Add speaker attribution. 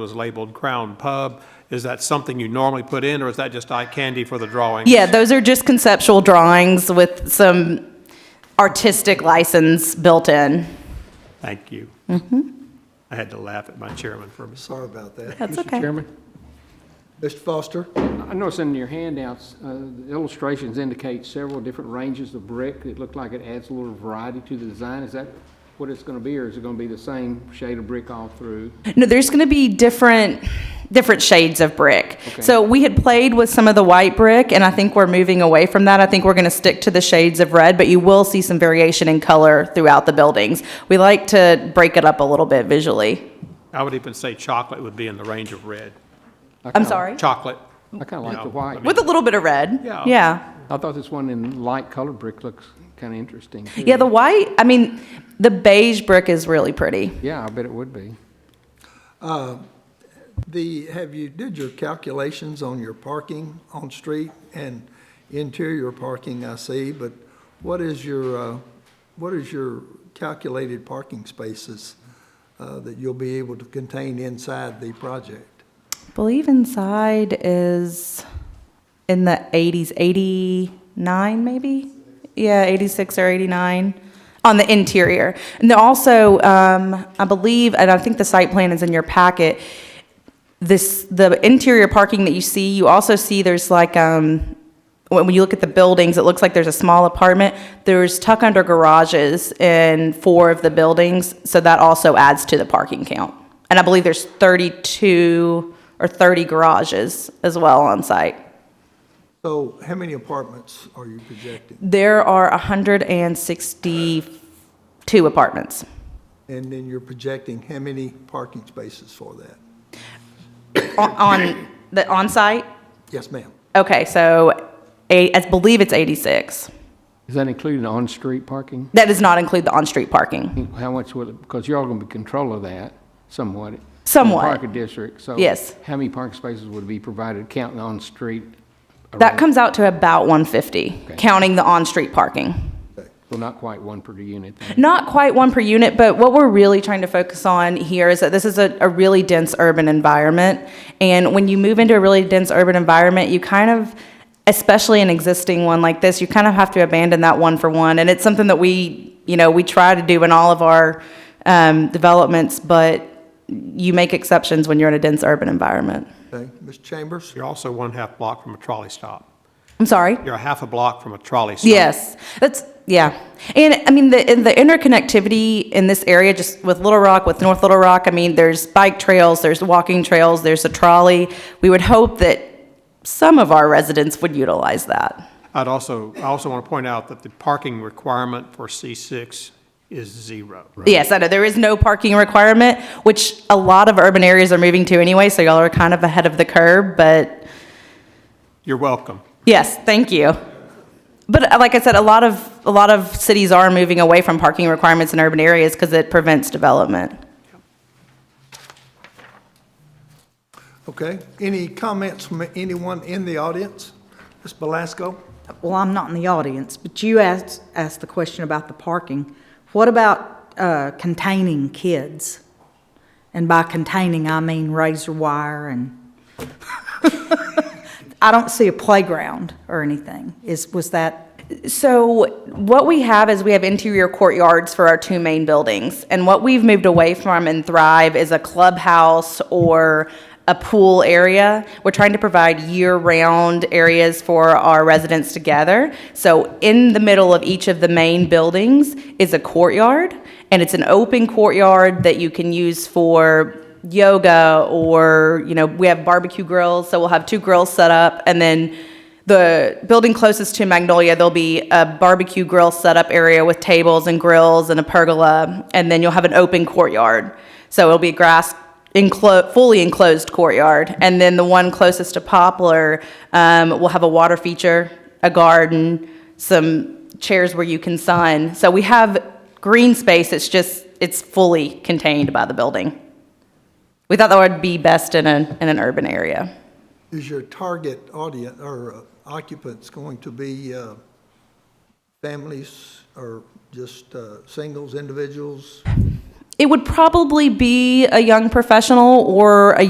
Speaker 1: was labeled Crown Pub. Is that something you normally put in, or is that just eye candy for the drawing?
Speaker 2: Yeah, those are just conceptual drawings with some artistic license built in.
Speaker 1: Thank you.
Speaker 2: Mm-hmm.
Speaker 1: I had to laugh at my chairman for a second.
Speaker 3: Sorry about that.
Speaker 2: That's okay.
Speaker 4: Mr. Chairman,
Speaker 3: Mr. Foster?
Speaker 4: I noticed in your handouts, uh, the illustrations indicate several different ranges of brick. It looked like it adds a little variety to the design. Is that what it's going to be, or is it going to be the same shade of brick all through?
Speaker 2: No, there's going to be different, different shades of brick. So we had played with some of the white brick, and I think we're moving away from that. I think we're going to stick to the shades of red, but you will see some variation in color throughout the buildings. We like to break it up a little bit visually.
Speaker 1: I would even say chocolate would be in the range of red.
Speaker 4: I
Speaker 2: I'm
Speaker 4: kinda-
Speaker 2: sorry?
Speaker 1: Chocolate,
Speaker 4: I kind of like
Speaker 1: No,
Speaker 4: the white.
Speaker 2: With a little bit of red.
Speaker 1: Yeah.
Speaker 2: Yeah.
Speaker 4: I thought this one in light colored brick looks kind of interesting. too.
Speaker 2: Yeah, the white, I mean, the beige brick is really pretty.
Speaker 4: Yeah, I bet it would be.
Speaker 3: The, have you, did your calculations on your parking on street and interior parking, I see, but what is your, uh, what is your calculated parking spaces uh, that you'll be able to contain inside the project?
Speaker 2: believe inside is in the 80s 89 maybe yeah 86 or 89 on the interior and then also um, i believe and i think the site plan is in your packet this the interior parking that you see you also see there's like um when when you look at the buildings it looks like there's a small apartment there's tuck under garages in four of the buildings so that also adds to the parking count and i believe there's 32 or 30 garages as well on site
Speaker 3: So how many apartments are you projecting?
Speaker 2: there are 162 apartments
Speaker 3: And then you're projecting how many parking spaces for that?
Speaker 2: on, on the on site
Speaker 3: Yes, ma'am.
Speaker 2: okay so eight, i believe it's 86
Speaker 4: Is that including on-street parking?
Speaker 2: that does not include the on-street parking
Speaker 4: How much will it, because you're all going to be in control of that somewhat. in the
Speaker 2: Somewhat.
Speaker 4: Parking district, so.
Speaker 2: Yes.
Speaker 4: How many parking spaces would be provided counting on-street?
Speaker 2: That comes out to about 150,
Speaker 4: Okay.
Speaker 2: counting the on-street parking.
Speaker 4: Well, not quite one per unit then.
Speaker 2: Not quite one per unit, but what we're really trying to focus on here is that this is a, a really dense urban environment. And when you move into a really dense urban environment, you kind of, especially an existing one like this, you kind of have to abandon that one for one. And it's something that we, you know, we try to do in all of our um, developments, but you make exceptions when you're in a dense urban environment.
Speaker 3: Okay, Ms. Chambers?
Speaker 1: you're also one half block from a trolley stop.
Speaker 2: I'm sorry?
Speaker 1: You're a half a block from a trolley stop.
Speaker 2: Yes, that's, yeah. And I mean, the, and the interconnectivity in this area, just with Little Rock, with North Little Rock, I mean, there's bike trails, there's walking trails, there's a trolley. We would hope that some of our residents would utilize that.
Speaker 1: I'd also, I also want to point out that the parking requirement for C6 is zero.
Speaker 2: Yes, I know, there is no parking requirement, which a lot of urban areas are moving to anyway, so y'all are kind of ahead of the curve, but
Speaker 1: You're welcome.
Speaker 2: yes, thank you. But uh, like I said, a lot of, a lot of cities are moving away from parking requirements in urban areas because it prevents development.
Speaker 3: Okay, any comments from anyone in the audience? Ms. Belasco?
Speaker 5: Well, I'm not in the audience, but you asked, asked the question about the parking. What about uh, containing kids? And by containing, I mean razor wire and, I don't see a playground or anything. Is, was that,
Speaker 2: So what we have is we have interior courtyards for our two main buildings. And what we've moved away from in Thrive is a clubhouse or a pool area. We're trying to provide year-round areas for our residents to gather. So in the middle of each of the main buildings is a courtyard, and it's an open courtyard that you can use for yoga or, you know, we have barbecue grills, so we'll have two grills set up, and then the building closest to Magnolia, there'll be a barbecue grill setup area with tables and grills and a pergola, and then you'll have an open courtyard. So it'll be a grass enclo- fully enclosed courtyard, and then the one closest to Poplar um, will have a water feature, a garden, some chairs where you can sun. So we have green space. It's just it's fully contained by the building. We thought that would be best in an in an urban area.
Speaker 3: Is your target audience or uh, occupants going to be uh, families or just uh, singles, individuals?
Speaker 2: It would probably be a young professional or a